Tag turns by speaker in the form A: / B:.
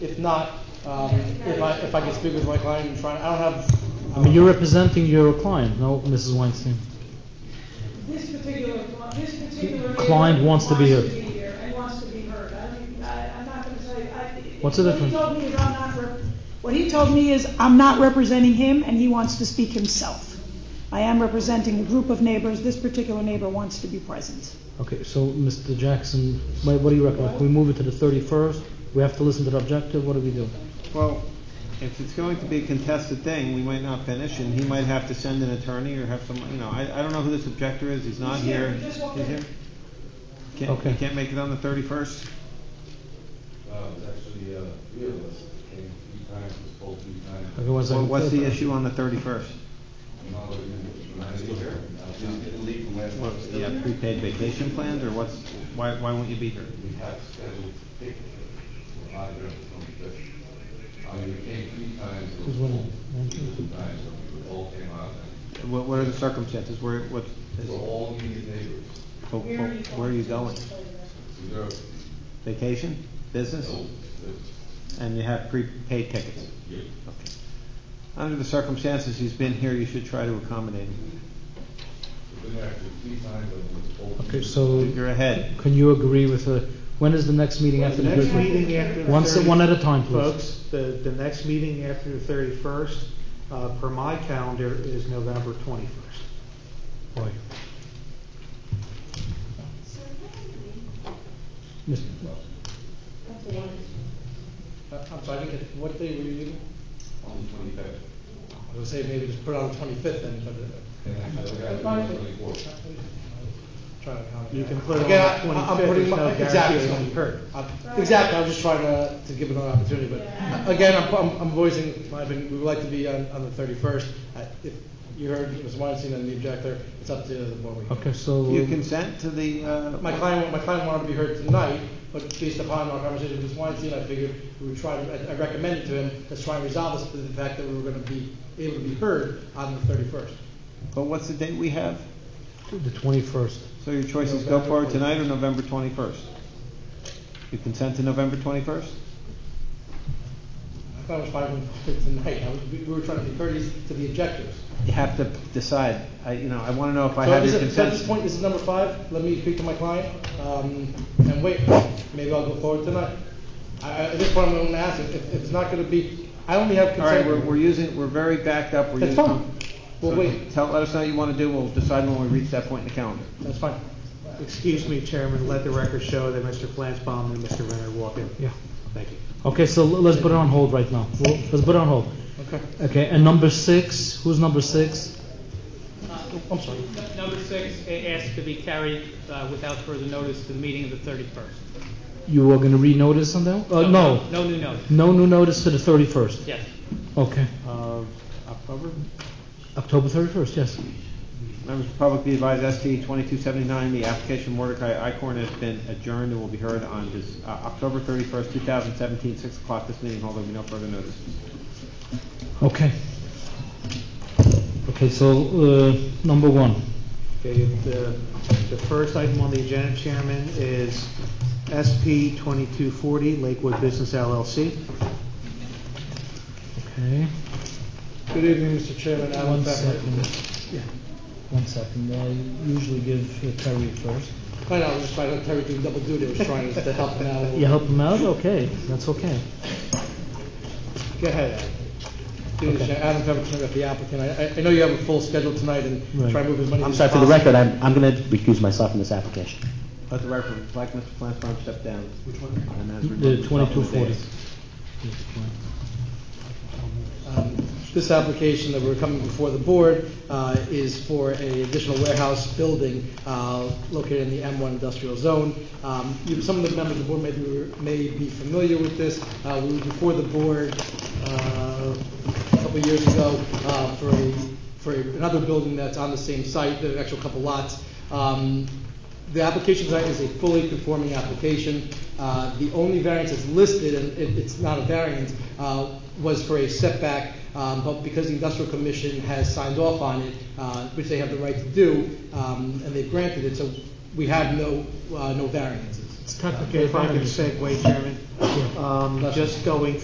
A: not, um, if I, if I can speak with my client and try, I don't have.
B: I mean, you're representing your client, no, Mrs. Weinstein.
C: This particular, cli- this particular.
B: Client
C: neighbor
B: wants to be
C: Wants to
B: heard.
C: be here and wants to be heard. I mean, I, I'm not gonna say, I.
B: What's the difference?
C: What he told me is I'm not, rep- what he told me is I'm not representing him and he wants to speak himself. I am representing a group of neighbors. This particular neighbor wants to be present.
B: Okay, so, Mr. Jackson, wha- what do you recommend? We move it to the 31st? We have to listen to the objective? What do we do?
D: Well, if it's going to be a contested thing, we might not finish, and he might have to send an attorney or have some, you know, I, I don't know who this objector is, he's not
C: He's here,
D: here.
C: he just walked
D: He's
C: in.
D: here? Can't, he
B: Okay.
D: can't make it on the thirty-first?
E: Uh, it was actually, uh, three of us came three times, was told three times.
B: Okay, one second.
D: What's the issue on the thirty-first?
E: I'm not looking at- I'm not still here. I was just getting leave from last
D: What,
E: month.
D: you have prepaid vacation plans, or what's, why, why won't you be here?
E: We have scheduled tickets for five years from the fifth. I mean, we came three times. it was
B: Who's winning?
E: full. Two times, it all came out.
D: What, what are the circumstances, where, what, is-
E: So all these neighbors,
D: wh- wh- where are you going?
E: we go,
D: Vacation, business,
E: oh, it's-
D: and you have prepaid tickets?
E: yeah.
D: Under the circumstances he's been here, you should try to accommodate him.
E: We've been there three times, and it was told.
B: Okay, so,
D: You're ahead.
B: can you agree with the, when is the next meeting after
A: The
B: the...
A: next
B: objective?
A: meeting after the.
B: One se- one
A: 30
B: at a time, please.
A: Folks, the, the next meeting after the thirty-first, uh, per my calendar, is November twenty-first.
B: Boy. Mr.
A: Uh, I'm sorry, what day were you leaving?
E: On the twenty-fifth.
A: I would say maybe just put it on the twenty-fifth then, but uh,
E: And I said, I got it on the twenty-fourth.
A: try to accommodate.
B: You can put it on
A: Again,
B: the
A: I- I'm
B: 25th,
A: putting
B: there's
A: my-
B: no guarantee
A: exactly,
B: it's
A: I'm-
B: gonna be heard.
A: I'm- Exactly, I was just trying to, to give it an opportunity, but again, I'm, I'm- I'm voicing my opinion, we would like to be on, on the thirty-first. If you heard Ms. Weinstein and the objector, it's up to the board.
B: Okay, so...
D: You consent to the, uh,
A: My client, my client wanted to be heard tonight, but based upon our conversation with Ms. Weinstein, I figured we would try, to- I I recommended to him, let's try and resolve this, to the fact that we were gonna be able to be heard on the thirty-first.
D: But what's the date we have?
B: The 21st.
D: So your choice is go
A: November
D: forward tonight or November twenty-first? You consent to November twenty-first?
A: I thought it was five and five tonight, I was, we we were trying to be courteous to the objectors.
D: You have to decide, I, you know, I wanna know if I
A: So
D: have
A: this
D: your
A: is- so at this
D: consent.
A: point, this is number five, let me speak to my client, um, and wait, maybe I'll go forward tonight. I, I, at this point, I'm gonna ask, if, if it's not gonna be, I only have
D: All right,
A: consent.
D: we're, we're using, we're very backed up, we're
A: That's
D: using.
A: fine,
D: So
A: well, wait,
D: Tell, let us know what you wanna do, we'll decide when we reach that point in the calendar.
A: that's fine.
F: Excuse me, Chairman, let the record show that Mr. Flansbaum and Mr. Renner walk in.
B: Yeah.
F: Thank you.
B: Okay, so l- let's put it on hold right now. We'll- Let's put it on hold.
A: Okay.
B: Okay, and number six, who's number six?
A: I'm sorry.
G: Number six, a- asked to be carried uh, without further notice to the meeting of the 31st.
B: You were gonna renotice on that? Uh, no,
G: No new notice,
B: no new notice to the 31st.
G: yes.
B: Okay,
F: Uh, October?
B: October 31st, yes.
D: Members of the public be advised, ST twenty-two seventy-nine, the application Mordecai Icorn has been adjourned and will be heard on this, uh, October thirty-first, two thousand seventeen, six o'clock, this meeting, although we no further notice.
B: Okay. Okay, so, uh, number one.
F: Okay, the, the first item on the agenda, Chairman, is SP 2240 Lakewood Business LLC.
B: Okay,
A: Good evening, Mr. Chairman, Alan
B: one
A: Pfeffer.
B: second. Yeah. One second, I usually give uh, Terry first.
A: I know, I was just trying to, Terry doing double duty, I was trying to help him out a little.
B: You help him out? Okay, that's okay.
A: Go ahead, Adam. Good evening, Adam Pemberton, with the applicant, I, I- I know you have a full schedule tonight and
B: Right.
A: try and move as many
H: I'm
A: as
H: sorry, for the
A: possible.
H: record, I'm, I'm going to recuse myself from this application.
D: Let the record reflect, Mr. Flansbrough stepped down. Which one?
B: The 2240.
A: Um, This application that we're coming before the board uh, is for an additional warehouse building uh, located in the M1 industrial zone. Um, you- Some of the members of the board may be- may be familiar with this. Uh, We were before the board uh, a couple of years ago uh, for a- for another building that's on the same site, the actual couple lots. Um, the application tonight is a fully conforming application. Uh, The only variance that's listed, and it- it's not a variance, uh, was for a setback, um, but because the industrial commission has signed off on it, uh, which they have the right to do, um, and they've granted it, so we have no, uh, no variances.
F: If I could segue, Chairman, um, just going